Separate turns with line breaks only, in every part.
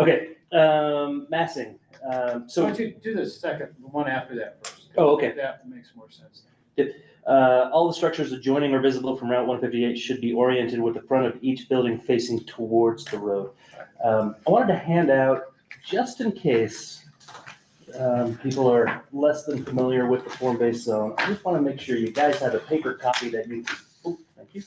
Okay, um, massing, um,
So why
so,
don't you do the second, the one after that first?
Oh, okay.
That makes more sense.
uh, all the structures adjoining or visible from Route one fifty-eight should be oriented with the front of each building facing towards the road. Um, I wanted to hand out, just in case, um, people are less than familiar with the form-based zone, I just wanna make sure you guys have a paper copy that you, oh, thank you.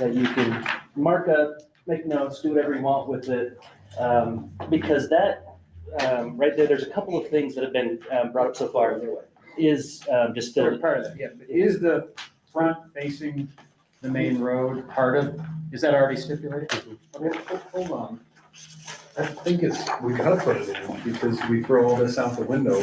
That you can mark up, make notes, do whatever you want with it, um, because that, um, right there, there's a couple of things that have been, um, brought up so far. Is, um, just
They're
the,
part of that, yeah. But Is the front facing the main road part of, is that already stipulated?
Mm-hmm.
Okay, ho- hold on.
I think it's, we gotta put it in, because we throw all this out the window.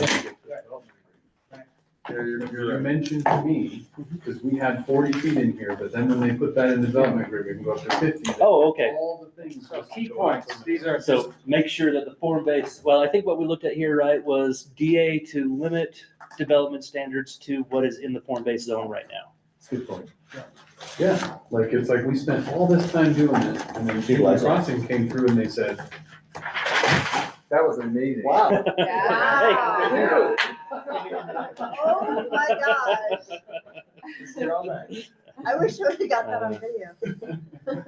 Your, your mention to me, because we had forty feet in here, but then when they put that in the development agreement, we go up to fifty.
oh, okay.
All the things.
So key points, these are just,
So make sure that the form base, well, I think what we looked at here, right, was DA to limit development standards to what is in the form based zone right now.
Good point. Yeah, like, it's like we spent all this time doing this, and then Kingwood Crossing came through and they said. That was amazing.
Wow.
Hey.
Oh my gosh. I wish I would have got that on video.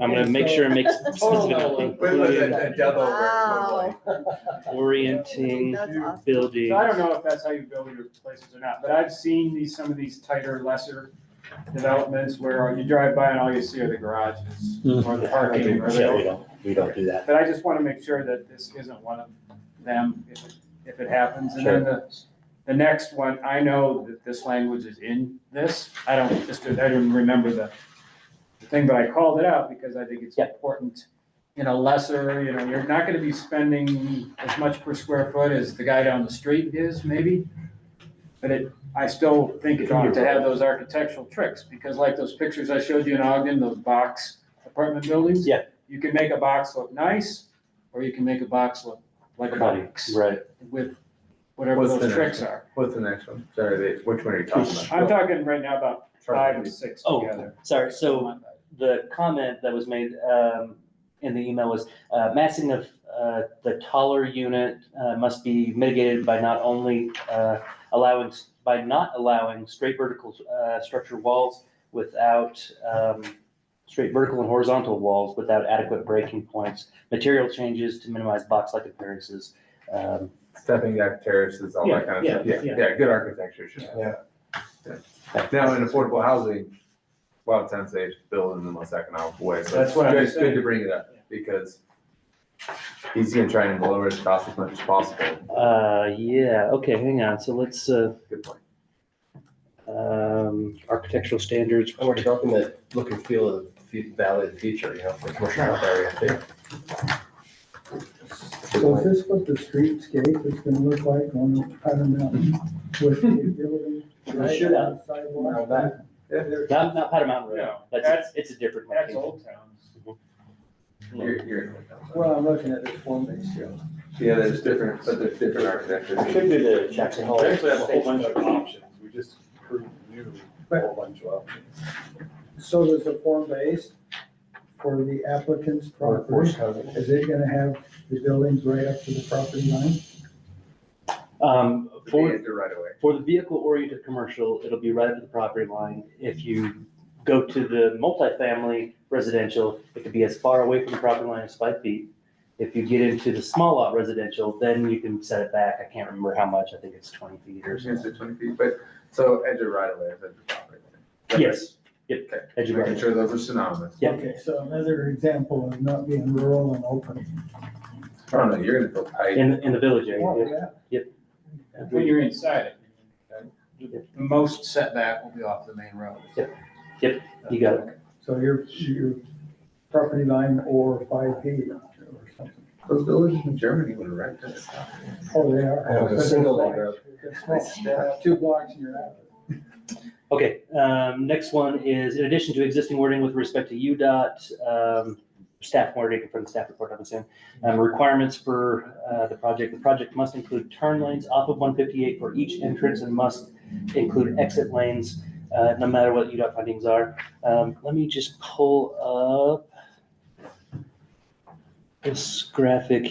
I'm gonna make sure it makes
Total
specific,
But it was a-
including
a double word, but like-
Wow.
orienting,
That's awesome.
building.
so I don't know if that's how you build your places or not, but I've seen these, some of these tighter, lesser developments where you drive by and all you see are the garages or
Mm-hmm.
the parking or
Yeah,
the
we don't, we don't do that.
But I just want to make sure that this isn't one of them, if, if it happens. And then the, the next one, I know that this language is in this. I don't, just, I didn't remember the, the thing, but I called it out because I think it's
Yeah.
important. You know, lesser, you know, you're not gonna be spending as much per square foot as the guy down the street is, maybe. But it, I still think it ought to have those architectural tricks, because like those pictures I showed you in Ogden, those box apartment buildings.
Yeah.
You can make a box look nice, or you can make a box look like a
Funny,
box
Right.
with whatever
What's the
those
next
tricks are.
What's the next one? Sorry, which one are you
talking
I'm talking right now about five and six
Oh,
together.
Sorry, so the comment that was made um, in the email was uh, massing of uh, the taller unit uh, must be mitigated by not only uh, allowing, by not allowing straight vertical uh, structure walls without um, straight vertical and horizontal walls without adequate breaking points, material changes to minimize box-like appearances. Um,
stepping deck terraces, all that kind of stuff.
Yeah,
Yeah,
yeah,
yeah, good architecture should have that. Yeah. Now, in affordable housing, a lot of times they build in the most economical way, so
That's
it's
what I'm
good, it's good
saying.
to bring it up, because he's gonna try and lower his cost as much as possible.
uh, Yeah, okay, hang on, so let's, uh,
Good point.
um, architectural standards.
And Oh, we're developing the look and feel of the fu- valley of the future, you know, for commercial area too.
So is this what the streetscape is gonna look like on the Powder Mountain with the building?
Right. Sure.
Now
Sidewalk?
that-
Not, not Powder Mountain Road,
No,
that's, it's a different.
That's Old Town.
You're, you're,
Well, I'm looking at this form base here.
yeah, there's different, but there's different architectures.
We should do the Jackson Hole.
We actually have a whole bunch of options, we just approved new, a whole bunch of options.
So there's a form base for the applicant's property. Is it gonna have the buildings right up to the property line?
Um, for,
The right away.
for the vehicle-oriented commercial, it'll be right up to the property line. If you go to the multifamily residential, it could be as far away from the property line as five feet. If you get into the small lot residential, then you can set it back. I can't remember how much. I think it's twenty feet or
There's gonna
something.
say twenty feet, but, so edge of right away, is edge of property. line.
Yes, yep,
Okay.
edge of
Making
right.
sure those are synonymous.
Yeah.
Okay, so another example of not being rural and open.
I don't know, you're gonna feel tight.
In, in the village area.
Yeah.
When you're inside it, the most setback will be off the main road.
Yep. Yep. You got it.
So your, your property line or five feet or something.
Those villages in Germany would erect this.
Oh, they are.
I have a single
But
lane
they're
road.
small. They're small. Two blocks and you're out.
Okay, um, next one is, in addition to existing wording with respect to UDOT, um, staff wording from the staff report, I'm assuming, um, requirements for, uh, the project, the project must include turn lanes off of one fifty-eight for each entrance and must include exit lanes, uh, no matter what UDOT findings are. Um, let me just pull up. This graphic